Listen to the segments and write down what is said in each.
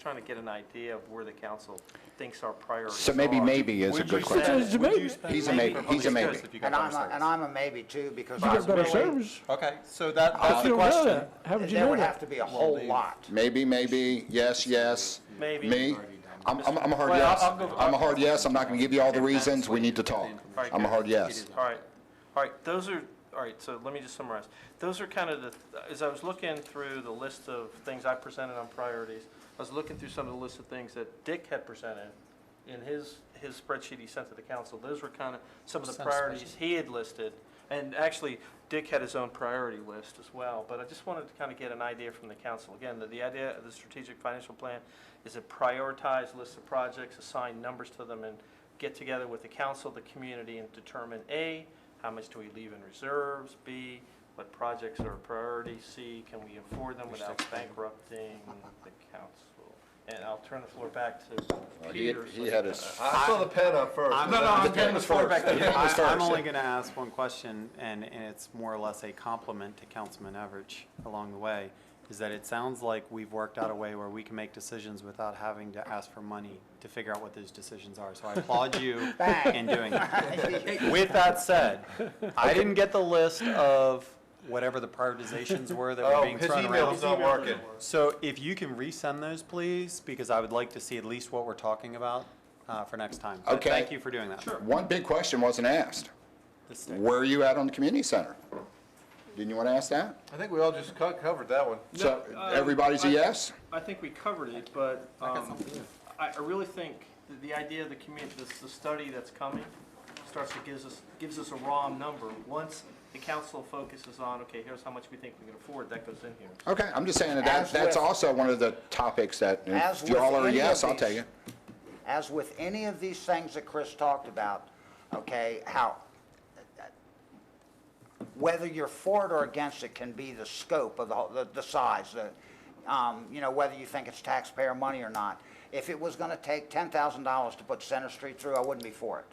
Trying to get an idea of where the council thinks our priorities So maybe are. maybe is a Would you good question. spend- would you spend He's a maybe. for He's a public maybe. service if you got And I'm, better a- and service? I'm a maybe too, because. You get better possibly service. Okay, so that, If that's you the don't know question. that, how would you There know would have that? to be a whole lot. Maybe, maybe, yes, yes. Maybe. Me? I'm, I'm I'm a hard Well, I'll- yes. I'll go- I'm a hard yes. I'm not going to give you all the reasons. We need to talk. All right, I'm a good. hard yes. All right, all right, those are, all right, so let me just summarize. Those are kind of the, as I was looking through the list of things I presented on priorities, I was looking through some of the list of things that Dick had presented in his, his spreadsheet he sent to the council. Those were kind of some of the Sounds priorities he had listed. And actually, Dick had his own priority list as well, but I just wanted to kind of get an idea from the council. Again, the, the idea of the strategic financial plan is a prioritized list of projects, assign numbers to them, and get together with the council, the community, and determine, A, how much do we leave in reserves? B, what projects are a priority? C, can we afford them without bankrupting the council? And I'll turn the floor back to He Peter. so he had can- his. I saw the pen up first. No, no, the pen was first. The pen was I- I'm only first. going to ask one question, and, and it's more or less a compliment to Councilman Everidge along the way, is that it sounds like we've worked out a way where we can make decisions without having to ask for money to figure out what those decisions are. So I applaud you Bang. in doing that. With that said, I didn't get the list of whatever the prioritizations were that were Oh, being his thrown email's around. not working. So if you can resend those, please, because I would like to see at least what we're talking about uh, for next time. But Okay. Thank you for doing that. Sure. One big question wasn't asked. Where are you at on the community center? Didn't you want to ask that? I think we all just co- covered that one. So No, um, everybody's a I- yes? I think we covered it, but um, I, I really think that the idea of the community, the study that's coming starts to gives us, gives us a raw number. Once the council focuses on, okay, here's how much we think we can afford, that goes in here. Okay, I'm just saying that that As that's with- also one of the topics that As if you all with are a any of yes, I'll these- take it. As with any of these things that Chris talked about, okay, how, whether you're for it or against it can be the scope of the, whole- the, the size, the, um, you know, whether you think it's taxpayer money or not. If it was gonna take ten thousand dollars to put Center Street through, I wouldn't be for it.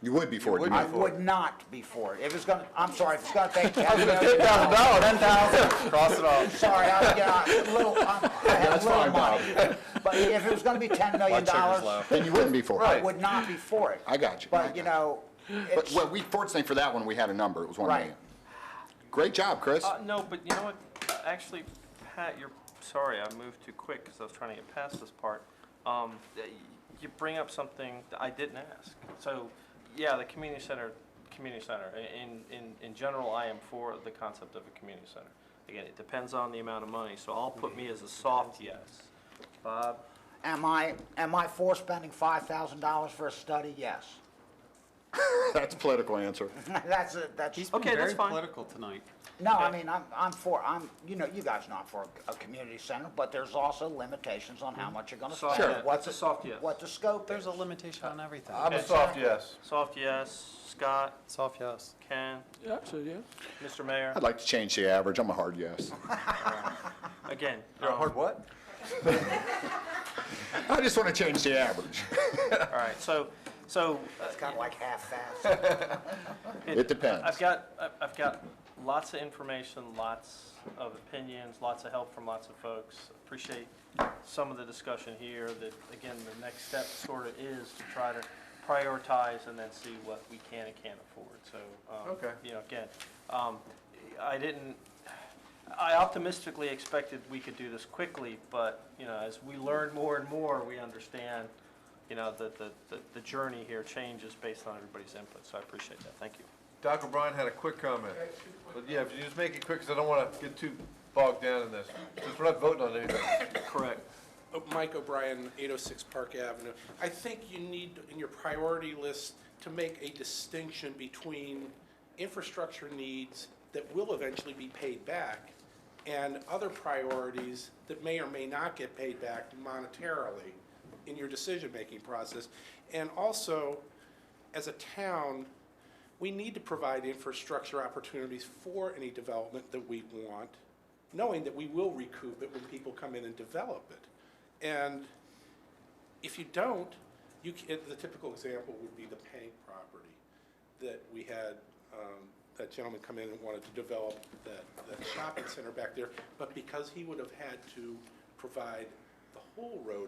You would be for it. you I mean. would not be for it. If it's gonna, I'm sorry, if it's gonna take ten thousand dollars. No, ten thousand, cross it off. Sorry, I was, yeah, a little, I I had a little money. But if it was gonna be ten million sugar's dollars, Then you wouldn't be for I it. would not be for it. I got you. I But, you got know, But, it's, well, we, fortunately for that one, we had a number. It was one Right. million. Great job, Chris. Uh, no, but you know what, Uh, actually, Pat, you're, sorry, I moved too quick because I was trying to get past this part. Um, uh, y- you bring up something that I didn't ask. So, yeah, the community center, community center, I- in, in, in general, I am for the concept of a community center. Again, it depends on the amount of money, so I'll put me as a soft yes. Bob, am I, am I for spending five thousand dollars for a study? Yes. That's a political answer. That's a, that's, He's been Okay, that's very fine. political tonight. no, I mean, I'm, I'm for, I'm, you know, you guys not for a community center, but there's also limitations on how much you're gonna Soft spend. yes. It's What's a the- soft yes. What the scope There's is. a limitation on everything. I'm a soft yes. soft yes, Scott, Soft yes. Ken, Yeah, I said yes. Mr. Mayor, I'd like to change the average. I'm a hard yes. again. You're a um, hard what? I just want to change the average. All right, so, so, uh, It's kinda like half-assed. It depends. I've got, I've- I've got lots of information, lots of opinions, lots of help from lots of folks. Appreciate some of the discussion here, that, again, the next step sort of is to try to prioritize and then see what we can and can't afford, so. um, Okay. You know, again, um, I didn't, I optimistically expected we could do this quickly, but, you know, as we learn more and more, we understand, you know, that the, the- the journey here changes based on everybody's input, so I appreciate that, thank you. Doc O'Brien had a quick comment. But yeah, if you just make it quick, because I don't want to get too bogged down in this. Because we're not voting on anything. Correct. Oh, Mike O'Brien, 806 Park Avenue. I think you need, in your priority list, to make a distinction between infrastructure needs that will eventually be paid back and other priorities that may or may not get paid back monetarily in your decision-making process. And also, as a town, we need to provide infrastructure opportunities for any development that we want, knowing that we will recoup it when people come in and develop it. And if you don't, you, ca- the typical example would be the Pank property that we had, um, that gentleman come in and wanted to develop that, that shopping center back there, but because he would have had to provide the whole road